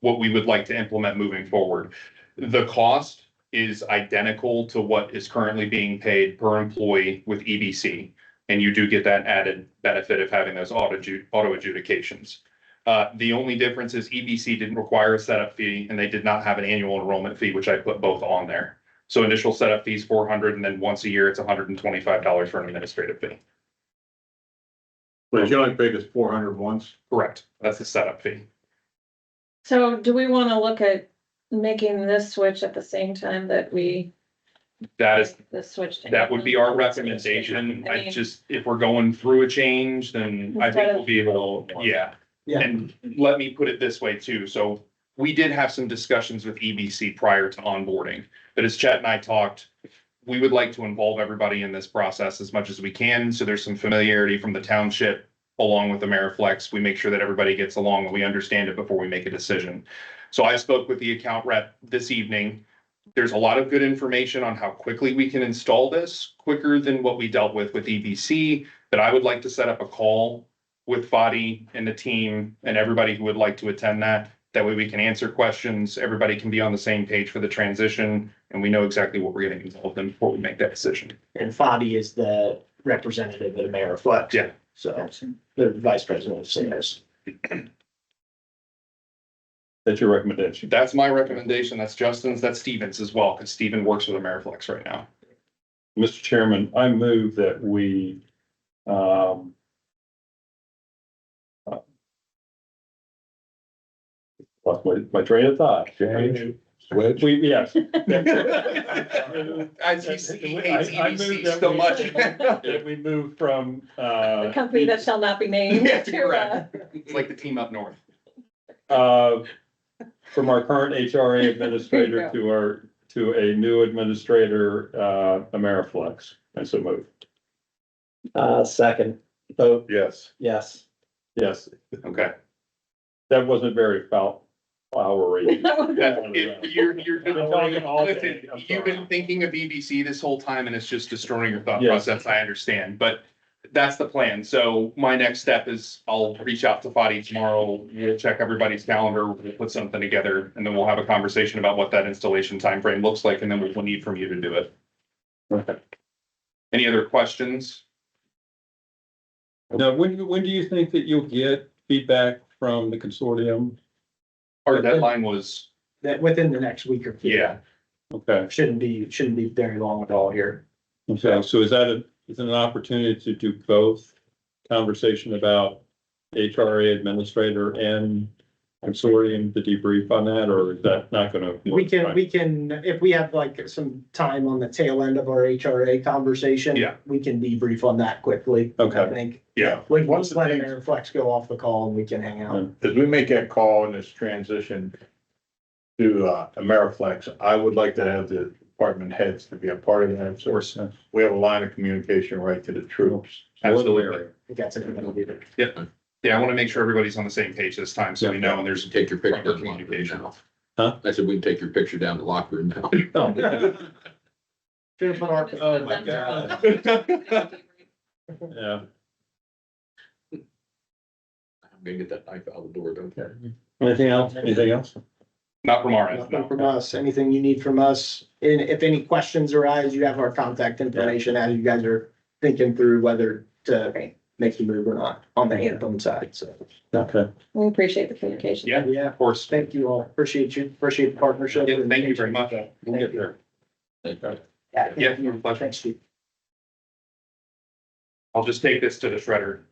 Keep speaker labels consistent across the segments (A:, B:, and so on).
A: what we would like to implement moving forward. The cost is identical to what is currently being paid per employee with EBC. And you do get that added benefit of having those auto adju- auto adjudications. Uh, the only difference is EBC didn't require a setup fee and they did not have an annual enrollment fee, which I put both on there. So initial setup fees four hundred and then once a year, it's hundred and twenty-five dollars for an administrative fee.
B: But you only paid us four hundred once.
A: Correct. That's the setup fee.
C: So do we wanna look at making this switch at the same time that we?
A: That is
C: The switch. to-
A: That would be our recommendation.
C: I
A: I
C: mean-
A: just, if we're going through a change, then I
C: Instead
A: think
C: of-
A: we'll be able, yeah.
D: Yeah.
A: And let me put it this way too. So we did have some discussions with EBC prior to onboarding. But as Chet and I talked, we would like to involve everybody in this process as much as we can. So there's some familiarity from the township along with Ameriflex. We make sure that everybody gets along and we understand it before we make a decision. So I spoke with the account rep this evening. There's a lot of good information on how quickly we can install this, quicker than what we dealt with with EBC. But I would like to set up a call with Fadi and the team and everybody who would like to attend that. That way we can answer questions, everybody can be on the same page for the transition, and we know exactly what we're getting involved in before we make that decision.
D: And Fadi is the representative at Ameriflex.
A: Yeah.
D: So the vice president of sales.
B: That's your recommendation.
A: That's my recommendation. That's Justin's, that's Stevens as well, because Steven works with Ameriflex right now.
B: Mr. Chairman, I move that we, um, uh, lost my, my train of thought.
E: Change, switch.
B: We, yes.
A: ITC hates
B: I- I moved
A: EBC
B: that
A: so
B: we-
A: much.
B: That we move from,
C: The
B: uh,
C: company that shall not be named.
A: Yeah,
C: to, uh,
A: It's like the team up north.
B: uh, from our current HRA administrator
C: There
B: to our, to a new administrator, uh, Ameriflex. And so move.
D: Uh, second, vote
E: Yes,
D: yes.
B: Yes,
A: Okay.
B: that wasn't very foul, flowery.
C: That would-
A: That- if you're, you're,
B: I've been talking all day.
A: listen,
B: I'm
A: you've been
B: sorry.
A: thinking of EBC this whole time and it's just destroying your thought
B: Yes.
A: process. I understand, but that's the plan. So my next step is I'll reach out to Fadi tomorrow. We'll check everybody's calendar, we'll put something together and then we'll have a conversation about what that installation timeframe looks like and then we will need from you to do it.
B: Okay.
A: Any other questions?
B: Now, when, when do you think that you'll get feedback from the consortium?
A: Our deadline was,
D: That within the next week or two.
A: yeah,
B: Okay,
D: Shouldn't be, shouldn't be very long at all here.
B: okay, so is that a, is it an opportunity to do both? Conversation about HRA administrator and consortium to debrief on that, or is that not gonna?
D: We can, we can, if we have like some time on the tail end of our HRA conversation.
A: Yeah.
D: We can debrief on that quickly.
B: Okay.
D: I think.
A: yeah,
E: One
D: Like, once
E: of the
D: let
E: things-
D: Ameriflex go off the call and we can hang out.
E: as we make that call in this transition to uh, Ameriflex, I would like to have the department heads to be a part of that. So
B: course.
E: we have a line of communication right to the troops.
A: absolutely.
D: I think that's a good idea.
A: Yeah, I want to make sure everybody's on the same page this time, so we know and there's.
F: Take your picture.
A: proper
F: down to the locker room
A: communication.
F: now.
B: Huh?
F: I said, we can take your picture down to the locker room now.
D: Should've put our-
C: Oh, my
D: God.
B: Yeah,
F: I'm gonna get that knife out the door, don't care.
B: anything else, anything else?
A: Not from our end,
D: Nothing
A: no.
D: from us, anything you need from us, and if any questions arise, you have our contact information as you guys are thinking through whether to make the move or not on the Anthem side, so.
B: Okay,
C: We appreciate the communication.
A: Yeah,
D: Yeah,
A: of course.
D: thank you all, appreciate you, appreciate the partnership.
A: Yeah, thank you very much.
B: we'll get there.
A: Yeah, my pleasure.
D: Thanks, Steve.
A: I'll just take this to the shredder.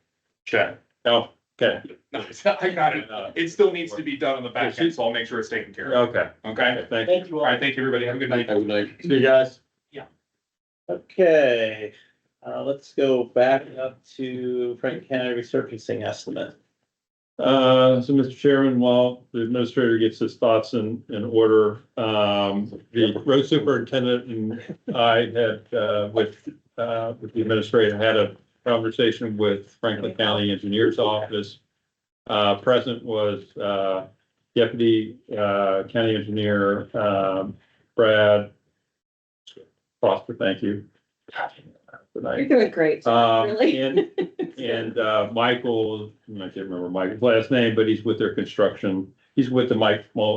A: Check.
B: Oh, okay.
A: No, I got it. It still needs to be done on the back end, so I'll make sure it's taken care of.
B: Okay,
A: Okay?
B: thank you.
D: Thank you
A: All
D: all.
A: right, thank you, everybody. Have a good night.
F: Have a night.
B: See you guys.
G: Okay, uh, let's go back up to Franklin County resurfacing estimate.
B: Uh, so Mr. Chairman, while the administrator gets his thoughts in, in order, um, the road superintendent and I had, uh, with, uh, with the administrator, had a conversation with Franklin County Engineer's Office. Uh, present was, uh, Deputy, uh, County Engineer, um, Brad Foster, thank you. Good night.
C: You're doing great.
B: Um,
C: Really?
B: and, and, uh, Michael, I can't remember Michael's last name, but he's with their construction he's with the Mike Mull